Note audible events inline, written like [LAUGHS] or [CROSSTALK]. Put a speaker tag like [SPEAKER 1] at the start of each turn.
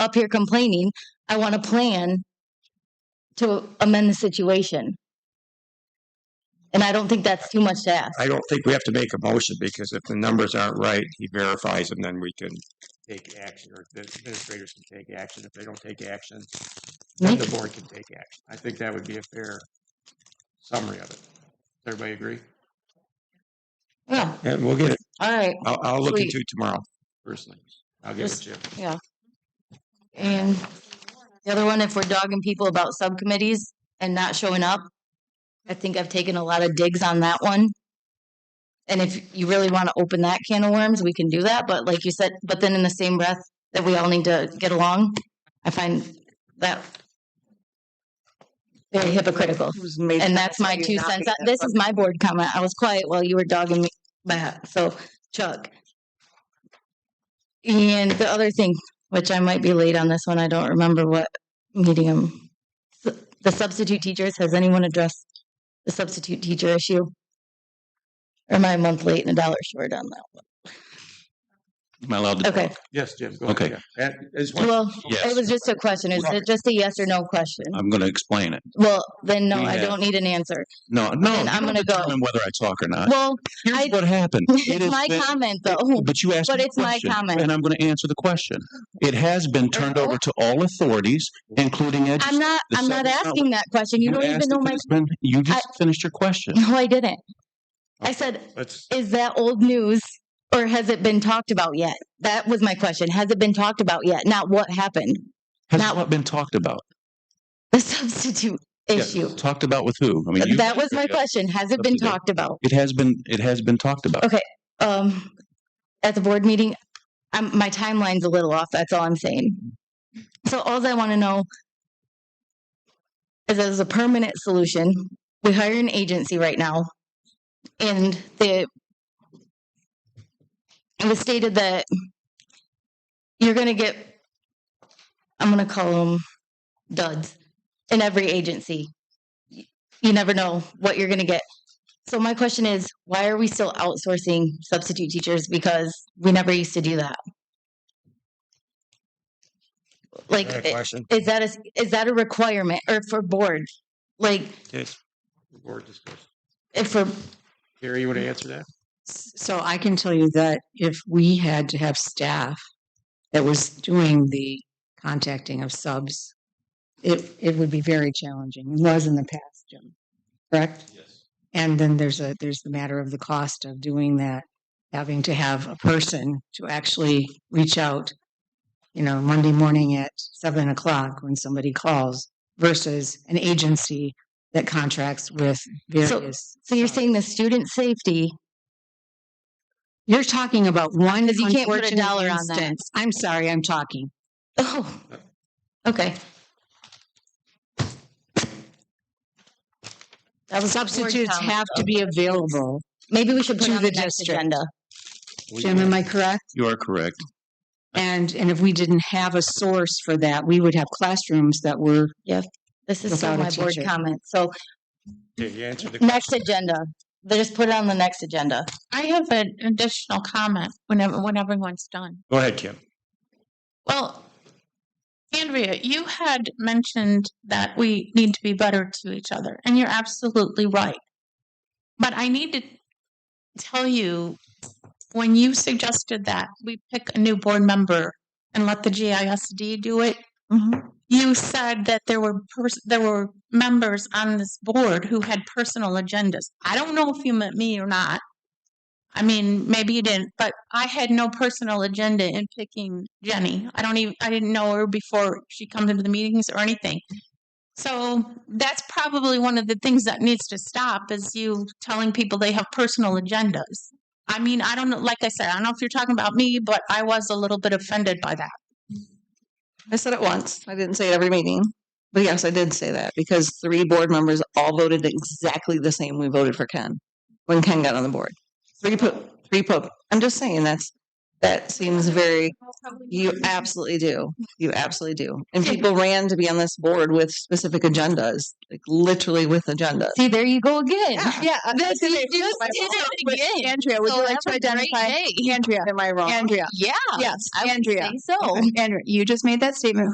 [SPEAKER 1] up here complaining. I want a plan to amend the situation. And I don't think that's too much to ask.
[SPEAKER 2] I don't think we have to make a motion because if the numbers aren't right, he verifies them, then we can take action or the administrators can take action. If they don't take action,
[SPEAKER 1] Hmm?
[SPEAKER 2] then the board can take action. I think that would be a fair summary of it. Everybody agree?
[SPEAKER 1] Yeah,
[SPEAKER 2] And we'll get it.
[SPEAKER 1] all right.
[SPEAKER 2] I'll, I'll look
[SPEAKER 1] Sweet.
[SPEAKER 2] into it tomorrow personally. I'll get with
[SPEAKER 1] Just-
[SPEAKER 2] Jim.
[SPEAKER 1] And the other one, if we're dogging people about subcommittees and not showing up, I think I've taken a lot of digs on that one. And if you really want to open that can of worms, we can do that. But like you said, but then in the same breath that we all need to get along, I find that very hypocritical. And that's my two cents. Uh, This is my board comment. I was quiet while you were dogging me back. So Chuck. And the other thing, which I might be late on this one, I don't remember what meeting I'm. The substitute teachers, has anyone addressed the substitute teacher issue? Or am I a month late and a dollar short on that?
[SPEAKER 3] Am I allowed to?
[SPEAKER 1] Okay,
[SPEAKER 2] Yes, Jim, go ahead.
[SPEAKER 3] Okay.
[SPEAKER 2] yeah. And it's one-
[SPEAKER 1] well,
[SPEAKER 3] Yes.
[SPEAKER 1] it was just a question. Is it just a yes or no question?
[SPEAKER 3] I'm going to explain it.
[SPEAKER 1] Well, then no,
[SPEAKER 3] We
[SPEAKER 1] I
[SPEAKER 3] have-
[SPEAKER 1] don't need an answer.
[SPEAKER 3] No, no.
[SPEAKER 1] Then
[SPEAKER 3] you
[SPEAKER 1] I'm
[SPEAKER 3] don't
[SPEAKER 1] gonna go.
[SPEAKER 3] determine Whether I talk or not.
[SPEAKER 1] Well, [LAUGHS] I-
[SPEAKER 3] Here's
[SPEAKER 1] [LAUGHS]
[SPEAKER 3] what happened. Uh, It
[SPEAKER 1] it's
[SPEAKER 3] has
[SPEAKER 1] my
[SPEAKER 3] been-
[SPEAKER 1] comment though.
[SPEAKER 3] But you asked.
[SPEAKER 1] But
[SPEAKER 3] me a
[SPEAKER 1] it's my
[SPEAKER 3] question,
[SPEAKER 1] comment.
[SPEAKER 3] And I'm going to answer the question. It has been turned over to all authorities, including
[SPEAKER 1] I'm
[SPEAKER 3] education.
[SPEAKER 1] not,
[SPEAKER 3] the
[SPEAKER 1] I'm not
[SPEAKER 3] subject- no,
[SPEAKER 1] asking that question. You don't even know my,
[SPEAKER 3] You just finished your question.
[SPEAKER 1] [LAUGHS] no, I didn't. I
[SPEAKER 2] Okay.
[SPEAKER 1] said,
[SPEAKER 2] Let's,
[SPEAKER 1] is that old news or has it been talked about yet? That was my question. Has it been talked about yet? Not what happened. [LAUGHS]
[SPEAKER 3] Has
[SPEAKER 1] Not-
[SPEAKER 3] what been talked about?
[SPEAKER 1] The substitute
[SPEAKER 3] Yeah,
[SPEAKER 1] issue.
[SPEAKER 3] Talked about with who? I mean, you-
[SPEAKER 1] That was my question. Has it been
[SPEAKER 3] Substitute.
[SPEAKER 1] talked about?
[SPEAKER 3] It has been, it has been talked about.
[SPEAKER 1] Okay. Um, at the board meeting, um, my timeline's a little off. That's all I'm saying. So all I want to know is as a permanent solution, we hire an agency right now and the it was stated that you're going to get, I'm going to call them duds in every agency. Y- You never know what you're going to get. So my question is, why are we still outsourcing substitute teachers? Because we never used to do that. Like,
[SPEAKER 2] Is that a
[SPEAKER 1] it-
[SPEAKER 2] question?
[SPEAKER 1] is that a is that a requirement or for board? Like,
[SPEAKER 2] Yes. Board discussion.
[SPEAKER 1] if for
[SPEAKER 2] Gary, you want to answer that?
[SPEAKER 4] So I can tell you that if we had to have staff that was doing the contacting of subs, it, it would be very challenging. It was in the past, Jim, correct?
[SPEAKER 2] Yes.
[SPEAKER 4] And then there's a, there's the matter of the cost of doing that, having to have a person to actually reach out, you know, Monday morning at seven o'clock when somebody calls versus an agency that contracts with various. uh,
[SPEAKER 1] so you're
[SPEAKER 4] subs.
[SPEAKER 1] saying the student safety.
[SPEAKER 4] You're talking about one
[SPEAKER 1] Because you can't put a
[SPEAKER 4] unfortunate
[SPEAKER 1] dollar on that.
[SPEAKER 4] instance. I'm sorry, I'm talking.
[SPEAKER 1] Oh, okay. That was board
[SPEAKER 4] Substitutes
[SPEAKER 1] comment.
[SPEAKER 4] have to be available.
[SPEAKER 1] Maybe we should put
[SPEAKER 4] to
[SPEAKER 1] it on the
[SPEAKER 4] the
[SPEAKER 1] next
[SPEAKER 4] district.
[SPEAKER 1] agenda.
[SPEAKER 4] Jim, am I correct?
[SPEAKER 3] You are correct.
[SPEAKER 4] And, and if we didn't have a source for that, we would have classrooms that were,
[SPEAKER 1] This is still
[SPEAKER 4] Without a
[SPEAKER 1] my board
[SPEAKER 4] teacher.
[SPEAKER 1] comment. So
[SPEAKER 2] Yeah, you answered the
[SPEAKER 1] next agenda. They just put it on the next agenda.
[SPEAKER 5] I have an additional comment whenever, when everyone's done.
[SPEAKER 2] Go ahead, Kim.
[SPEAKER 5] Well, Andrea, you had mentioned that we need to be better to each other, and you're absolutely right. But I need to tell you when you suggested that we pick a new board member and let the GISD do it, you said that there were pers- there were members on this board who had personal agendas. I don't know if you meant me or not. I mean, maybe you didn't, but I had no personal agenda in picking Jenny. I don't even I didn't know her before she comes into the meetings or anything. So that's probably one of the things that needs to stop is you telling people they have personal agendas. I mean, I don't know, like I said, I don't know if you're talking about me, but I was a little bit offended by that.
[SPEAKER 6] I said it once. I didn't say it every meeting. But yes, I did say that because three board members all voted exactly the same we voted for Ken when Ken got on the board. Three po- three po- I'm just saying that's That seems very, you absolutely do. You absolutely do. And people ran to be on this board with specific agendas, like literally with agendas.
[SPEAKER 5] See, there you go again.
[SPEAKER 4] [LAUGHS] Yeah, uh,
[SPEAKER 5] This
[SPEAKER 4] okay,
[SPEAKER 5] is
[SPEAKER 4] wait,
[SPEAKER 5] just
[SPEAKER 4] my
[SPEAKER 5] did
[SPEAKER 4] fault.
[SPEAKER 5] it
[SPEAKER 4] Wait,
[SPEAKER 5] again.
[SPEAKER 4] Andrea, would
[SPEAKER 5] So
[SPEAKER 4] you like
[SPEAKER 5] have
[SPEAKER 4] to
[SPEAKER 5] a great
[SPEAKER 4] identify?
[SPEAKER 5] day. [LAUGHS]
[SPEAKER 4] Andrea,
[SPEAKER 6] Am I wrong?
[SPEAKER 4] Andrea,
[SPEAKER 5] Yeah.
[SPEAKER 4] yes,
[SPEAKER 5] I would
[SPEAKER 4] Andrea.
[SPEAKER 5] think so.
[SPEAKER 4] [LAUGHS] Okay, Andrea, you just made that statement